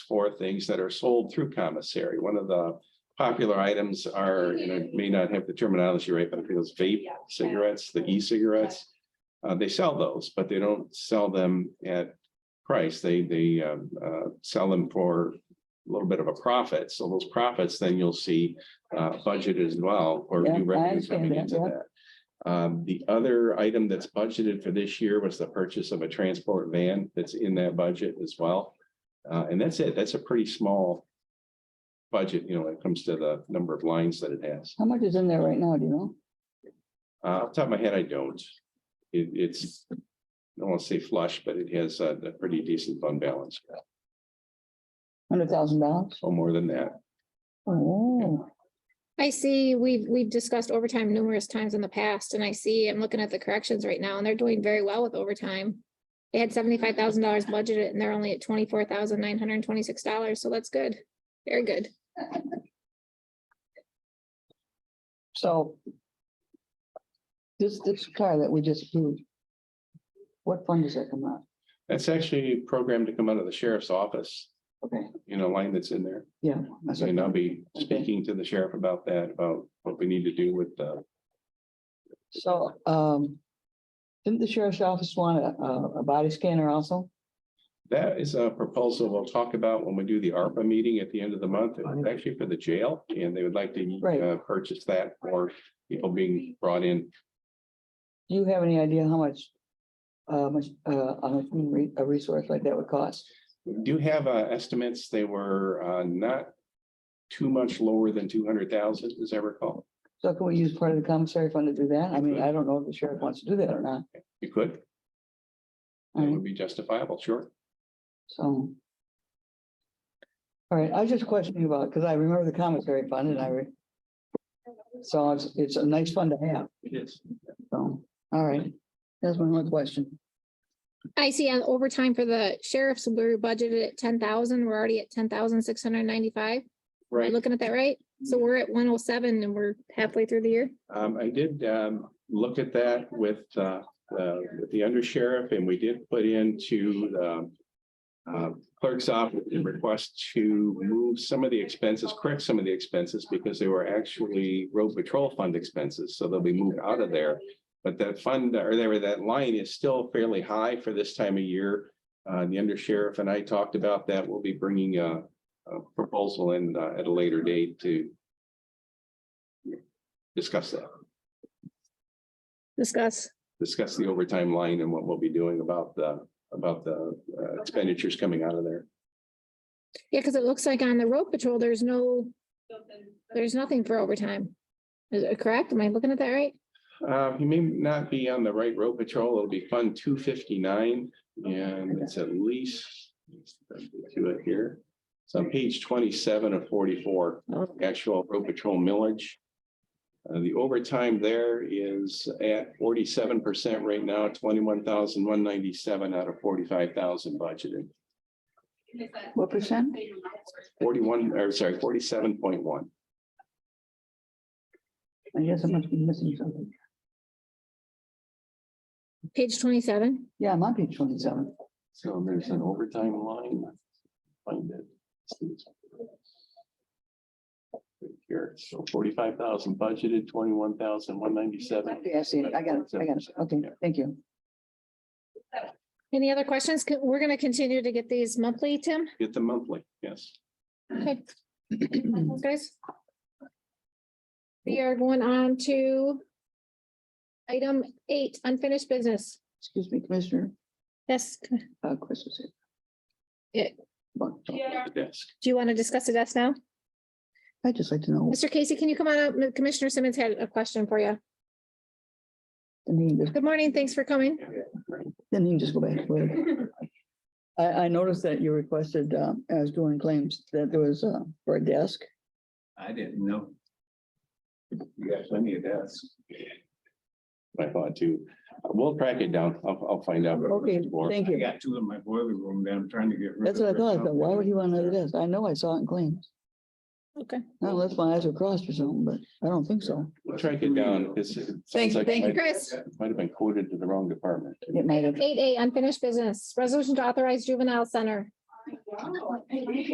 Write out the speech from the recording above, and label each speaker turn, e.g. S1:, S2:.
S1: for things that are sold through commissary. One of the popular items are, and I may not have the terminology right, but I think those vape cigarettes, the e-cigarettes. Uh, they sell those, but they don't sell them at price. They, they, um, uh, sell them for a little bit of a profit. So those profits, then you'll see, uh, budget as well, or
S2: Yeah, I
S1: new revenue
S2: understand
S1: coming
S2: that,
S1: into
S2: yeah.
S1: that. Um, the other item that's budgeted for this year was the purchase of a transport van that's in that budget as well. Uh, and that's it. That's a pretty small budget, you know, when it comes to the number of lines that it has.
S2: How much is in there right now, do you know?
S1: Uh, off the top of my head, I don't. It, it's, I don't want to say flush, but it has a, a pretty decent fund balance,
S2: Hundred thousand dollars?
S1: so more than that.
S2: Oh,
S3: I see, we've, we've discussed overtime numerous times in the past, and I see, I'm looking at the corrections right now, and they're doing very well with overtime. They had seventy-five thousand dollars budgeted, and they're only at twenty-four thousand nine hundred and twenty-six dollars, so that's good, very good.
S2: so. This, this car that we just approved. What fund does that come out?
S1: That's actually programmed to come out of the sheriff's office,
S2: Okay,
S1: you know, line that's in there.
S2: yeah. that's what I
S1: And I'll
S2: thought.
S1: be speaking to the sheriff about that, about what we need to do with the,
S2: So, um. Didn't the sheriff's office want a, a- a body scanner also?
S1: that is a proposal we'll talk about when we do the ARPA meeting at the end of the month. It's actually for the jail and they would like
S2: Right.
S1: to uh, purchase that for people being brought in.
S2: Do you have any idea how much? Uh, much, uh, a human re- a resource like that would cost?
S1: We do have uh, estimates. They were uh, not too much lower than two hundred thousand, as I recall.
S2: So can we use part of the commissary fund to do that? I mean, I don't know if the sheriff wants to do that or not.
S1: You could, that
S2: I mean,
S1: would be justifiable, sure.
S2: So. All right, I was just questioning about, because I remember the commissary fund and I re. So it's, it's a nice fund to have,
S1: It is.
S2: so, all right, that's my one question.
S3: I see on overtime for the sheriffs, we were budgeted at ten thousand, we're already at ten thousand six hundred and ninety-five, am I
S1: Right.
S3: looking at that right? So we're at one oh seven, and we're halfway through the year,
S1: Um, I did um, look at that with uh, uh, with the undersheriff and we did put into the uh, clerk's office a request to move some of the expenses, correct some of the expenses because they were actually road patrol fund expenses. So they'll be moved out of there. But that fund or there, that line is still fairly high for this time of year. Uh, the undersheriff and I talked about that. We'll be bringing a a proposal in uh, at a later date to discuss that.
S3: discuss.
S1: discuss the overtime line and what we'll be doing about the, about the uh, expenditures coming out of there.
S3: Yeah, because it looks like on the road patrol, there's no, there's nothing for overtime. Is it correct? Am I looking at that right?
S1: Uh, you may not be on the right road patrol. It'll be Fund two fifty-nine and it's at least to it here. It's on page twenty-seven of forty-four, actual road patrol millage. Uh, the overtime there is at forty-seven percent right now, twenty-one thousand one ninety-seven out of forty-five thousand budgeted.
S2: What percent?
S1: Forty-one, or sorry, forty-seven point one.
S2: I guess I must be missing something.
S3: Page twenty-seven.
S2: Yeah, it might be twenty-seven.
S1: So there's an overtime line. Find it. Right Here, so forty-five thousand budgeted, twenty-one thousand, one ninety-seven.
S2: Okay, I see, it. I got it, I got it, okay, thank you.
S3: Any other questions? Co- We're gonna continue to get these monthly, Tim.
S1: Get the monthly, yes.
S3: Okay. Guys. We are going on to item eight, unfinished business.
S2: Excuse me, Commissioner,
S3: Yes,
S2: uh, Chris was here.
S3: Yeah.
S2: Well,
S1: Desk.
S3: do you want to discuss the desk now?
S2: I'd just like to know.
S3: Mr. Casey, can you come on up? Commissioner Simmons had a question for you.
S2: the name of-
S3: Good morning. Thanks for coming.
S2: Then you can just go back. to it. I, I noticed that you requested, um, as doing claims, that there was, uh, for a desk.
S4: I didn't know. You got plenty of desks.
S1: I thought too. We'll track it down. I'll, I'll find out.
S2: Okay, thank
S4: I
S2: you.
S4: got two in my boiler room that I'm trying to get rid of.
S2: That's what I thought. I thought, why would he want another
S4: that?
S2: desk? I know I saw it in claims.
S3: Okay.
S2: Not Unless my eyes are crossed or something, but I don't think so.
S1: We'll track it down. because it sounds
S2: Thank you,
S1: like it
S2: thank you.
S1: might-
S3: Chris.
S1: Might have been quoted to the wrong department.
S2: It might have.
S3: Item eight A, unfinished business, resolution to authorize juvenile center.